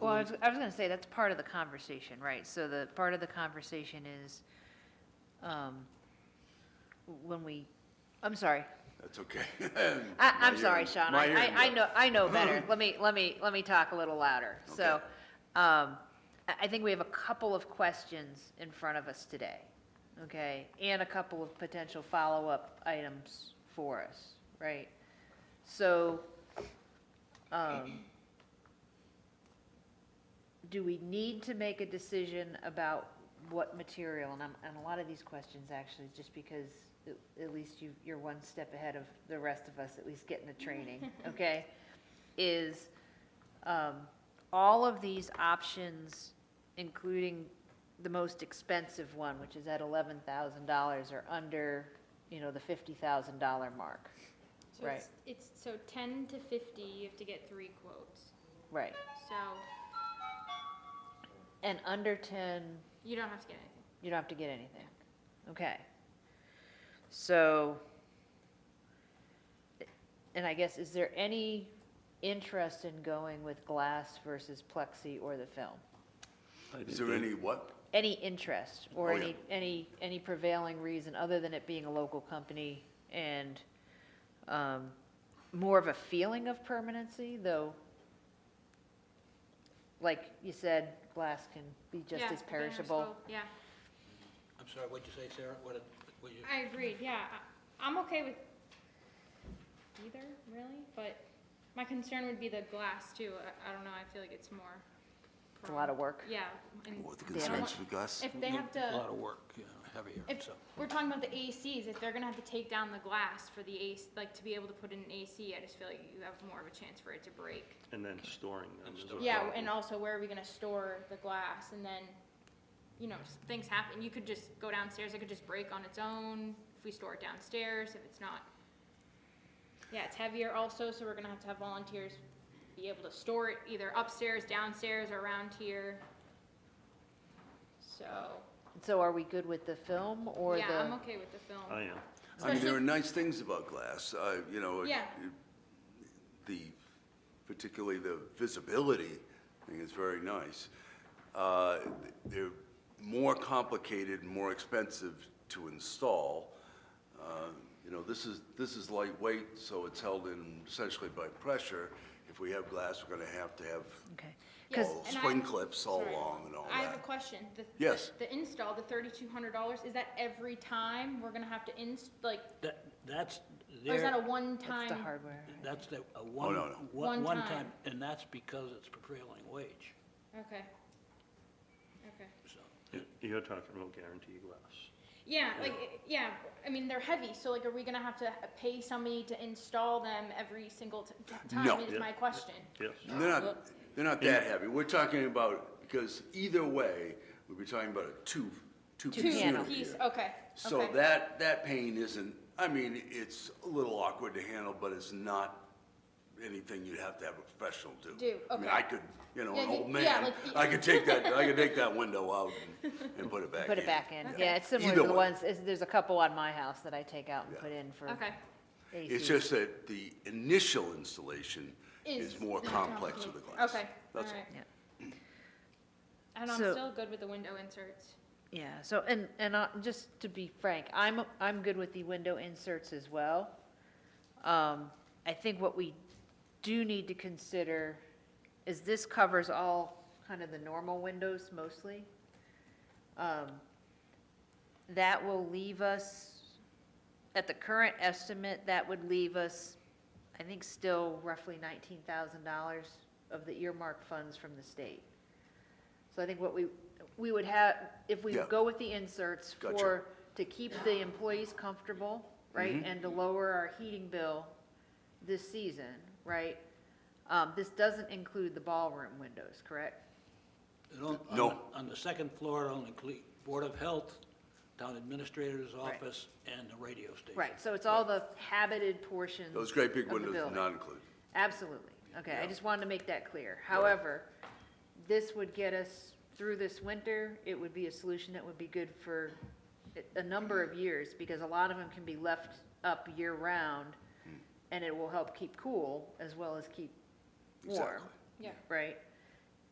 Well, I was, I was gonna say, that's part of the conversation, right? So the, part of the conversation is, um, when we, I'm sorry. That's okay. I, My I'm sorry, hearing- Sean, my I, I hearing I goes. know, I know better. Let me, let me, let me talk a little louder. So, Okay. um, I, I think we have a couple of questions in front of us today, okay? And a couple of potential follow-up items for us, right? So, um, do we need to make a decision about what material? And I'm, and a lot of these questions actually, just because at- at least you, you're one step ahead of the rest of us, at least getting the training, okay? Is, um, all of these options, including the most expensive one, which is at eleven thousand dollars, are under, you know, the fifty thousand dollar mark, So Right. it's- It's, so ten to fifty, you have to get three quotes. right? So And under ten, you don't have to get anything. You don't have to get anything. Okay. So, and I guess, is there any interest in going with glass versus plexi or the film? Is there any what? Any interest or Oh, yeah. any, any, any prevailing reason other than it being a local company and, um, more of a feeling of permanency, though? Like you said, glass can be just Yeah, as the banner perishable. scope, Yeah, I'm sorry, what'd you say, Sarah? What, did- what you, I agreed, yeah. I- I'm okay with either, really, but my concern would be the glass too. I, I don't know, I feel like it's more. It's a lot of work. Yeah. and What the Yeah. concerns with Gus? If they Yeah, have A lot to, of work, you know, heavier, if, so. we're talking about the ACs, if they're gonna have to take down the glass for the AC, like to be able to put in an AC, I just feel like you have more of a chance for it to break. And then storing them. And is a storing. Yeah, problem. and also where are we gonna store the glass and then, you know, s- things happen, you could just go downstairs, it could just break on its own, if we store it downstairs, if it's not. Yeah, it's heavier also, so we're gonna have to have volunteers be able to store it either upstairs, downstairs, or around here. So, So are we good with the film or the? yeah, I'm okay with the film. I am. I mean, there are especially- nice things about glass, uh, you know. it- Yeah. it- The, particularly the visibility, I think is very nice. Uh, They're more complicated, more expensive to install. Uh, You know, this is, this is lightweight, so it's held in essentially by pressure. If we have glass, we're gonna have to have Okay. Yes, all and I- swing clips all sorry. along and all that. I have a question. The- Yes. The install, the thirty-two hundred dollars, is that every time we're gonna have to inst, like, That, that's Or Oh, is that a there, one-time? That's the hardware. that's the, a one, Oh, no, no. One one, one time. time, and that's because it's prevailing wage, Okay. Okay. so. You're talking about guaranteed glass. Yeah, like, it- yeah, I mean, they're heavy, so like, are we gonna have to pay somebody to install them every single t- t- No. time is Yeah. my question. Yes. They're not, they're not that heavy. We're talking about, because either way, we'd be talking about a two, two-piece piano. unit Piece, oh, here. okay, So okay. that, that pain isn't, I mean, it's a little awkward to handle, but it's not anything you'd have to have a professional do. Do, I mean, okay. I could, you know, an Yeah, you- old yeah, man, like- I could take that, I could take that window out and, and put it back in. Put it back in, yeah, it's similar Either to the way. ones, it's- there's a couple on my house that I take out and Yeah. put in for Okay, AC. It's just that the initial installation Is is more more complex with the complicated. glass. Okay, That's alright. all. and I'm So- still good with the window inserts. Yeah, so, and, and I- just to be frank, I'm, I'm good with the window inserts as well. Um, I think what we do need to consider is this covers all kind of the normal windows mostly. Um, That will leave us, at the current estimate, that would leave us, I think, still roughly nineteen thousand dollars of the earmark funds from the state. So I think what we, we would have, if we Yeah. go with the inserts Gotcha. for, to keep the employees comfortable, Mm-hmm. right? And to lower our heating bill this season, right? Um, this doesn't include the ballroom windows, correct? It don't- on No. the- On the second floor, it only includes Board of Health, Town Administrator's Right. Office, and the radio station. Right, so it's all the habited portions Those great big of the windows are building. not included. Absolutely, okay, I just wanted to make that clear. However, this would get us through this winter, it would be a solution that would be good for a- a number of years, because a lot of them can be left up year-round, and it will help keep cool as well as keep warm, Exactly. Yeah. right?